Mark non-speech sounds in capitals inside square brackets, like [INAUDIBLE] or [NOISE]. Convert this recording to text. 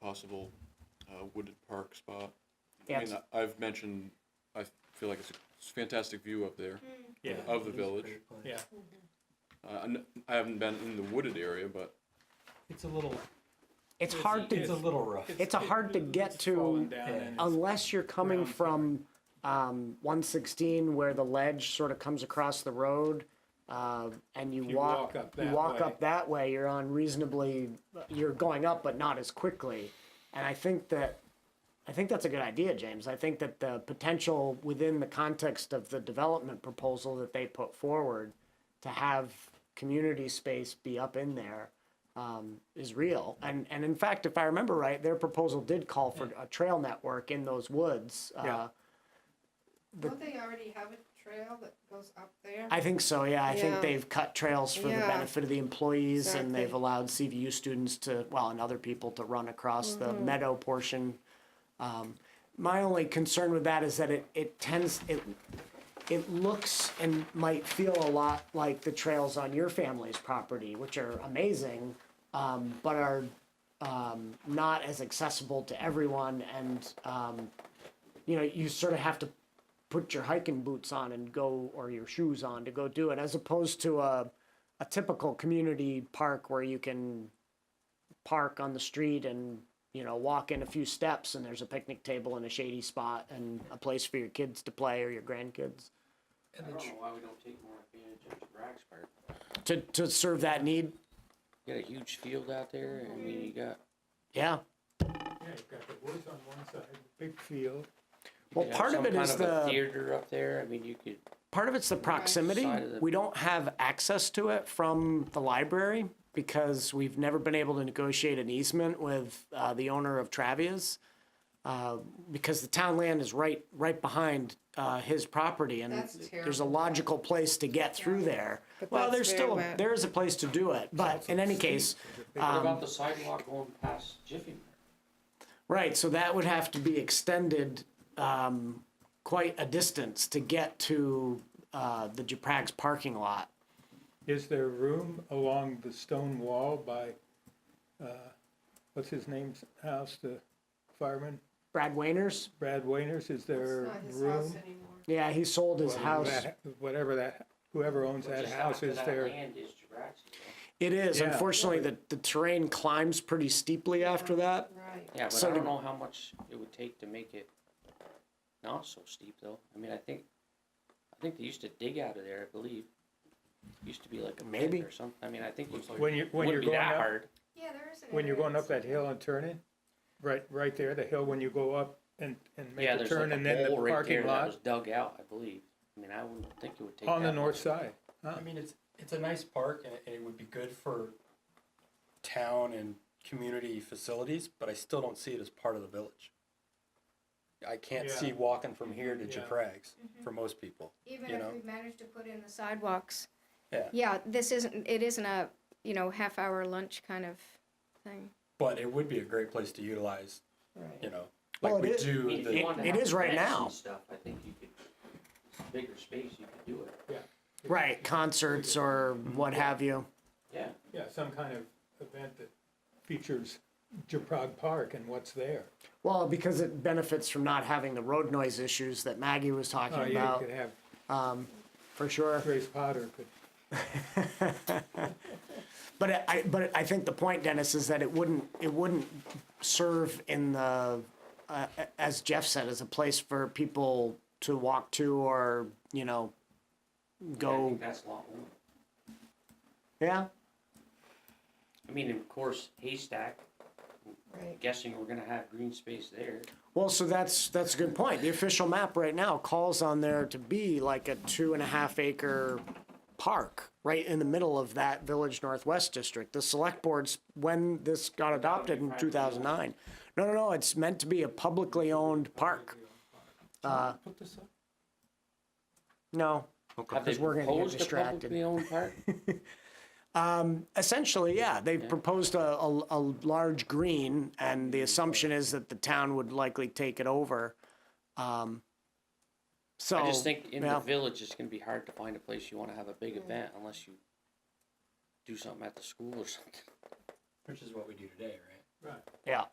possible uh, wooded park spot. I Yes. mean, I- I've mentioned, I feel like it's a fantastic view up there Yeah, of the village. yeah. Uh, I kn- I haven't been in the wooded area, but It's a little, It's It's- hard it's a to, little rough. it's a hard to get it's fallen to down and it's- unless you're coming ground from um, 116 where the ledge sort of comes across the road. Uh, and you, You walk, walk up you that walk way. up that way. You're on reasonably, you're going up, but not as quickly. And I think that, I think that's a good idea, James. I think that the potential within the context of the development proposal that they put forward to have community space be up in there um, is real. And and in fact, if I remember right, their proposal did call for a trail network in those woods. Uh, Yeah. Don't they already have a trail that goes up there? I think so. Yeah, I think Yeah. they've cut trails for the Yeah. benefit of the employees, and they've Exactly. allowed CVU students to well and other people to run across the meadow portion. Um, my only concern with that is that it it tends it it looks and might feel a lot like the trails on your family's property, which are amazing, um, but are um, not as accessible to everyone. And um, you know, you sort of have to put your hiking boots on and go, or your shoes on to go do it, as opposed to a a typical community park where you can park on the street and you know walk in a few steps and there's a picnic table and a shady spot and a place for your kids to play or your grandkids I don't know why we don't take more advantage of Drax Park. to to serve that need. Got a huge field out there, I mean, you got. Yeah. Yeah, you've got the woods on one side, big field. you Well, could have part of some it kind is of a the- Theater up there, I mean, you could, Part of it's the proximity. Side of the- We don't have access to it from the library because we've never been able to negotiate an easement with uh, the owner of Travia's. Uh, because the town land is right, right behind uh, his property and That's there's a terrible. logical place to get through there. Well, that's there's very still, wet. there is a place to do it, but in any case, Um, what about the sidewalk going past Jiffy Mart? Right, so that would have to be extended um, quite a distance to get to uh, the Japrag's parking lot. Is there room along the stone wall by, uh, what's his name's house, the fireman, Brad Wainers? Brad Wainers, is It's there not his house room? anymore. Yeah, he sold his Well, house. that- Whatever that, whoever owns Which that is house not- is that there, Land is Drax, you know? It is, Yeah. unfortunately, the, the terrain climbs pretty steeply after that. Right. Yeah, but So I to- don't know how much it would take to make it not so steep though. I mean, I think, I think they used to dig out of there, I believe. Used to be like a Maybe. pit or something. I mean, I think it's when you, when you're wouldn't be going that up, hard. Yeah, there is an. when you're area going up that that's- hill and turning, right, right there, the hill when you go up and, and make Yeah, the there's turn like and then a the hole right there parking that was lot dug out, I believe. I mean, I wouldn't think it would take that. on the north much. side. I mean, it's, it's a nice park and it- and it would be good for town and community facilities, but I still don't see it as part of the village. I can't see Yeah. walking from here to Yeah. Japrags for most people. Even you know? if we manage to put in the sidewalks. Yeah. Yeah, this isn't, it isn't a, you know, half hour lunch kind of thing. But it would be a great place to utilize, you Right. know, Well, like it we is- I do mean, if you it- the, wanted to it have is right events and now. Stuff, I think you could, it's bigger space, you could do it. Right, concerts or what have you. Yeah. Yeah, some kind of event that features Japrag Park and what's there. Well, because it benefits from not having the road noise issues that Maggie was Oh, talking you about, could have for sure. Grace Potter could, But I- I, but I think the point, Dennis, is that it wouldn't, it wouldn't serve in the, uh, a- as Jeff said, as a place for people to walk to or, you know, I go, think that's a lot more. yeah? I mean, of course, haystack, Right. guessing we're gonna have green space there. Well, so that's, that's a good point. The official map right now calls on there to be like a two and a half acre park right in the middle of that Village Northwest District. The select boards, when this got adopted in two thousand nine, no, no, no, it's meant to be a publicly owned park. Uh, put this up. No, Have they 'Cause Oh, we're gonna get proposed a distracted. publicly owned [LAUGHS] park? Essentially, yeah, they've proposed a, a, a large green, and Mm-hmm. the assumption is that the town would likely take it over. Um, so I just think in yeah. the village, it's gonna be hard to find a place you wanna have a big event unless you do something at the school or something. Which is what we do today, right? right. yeah.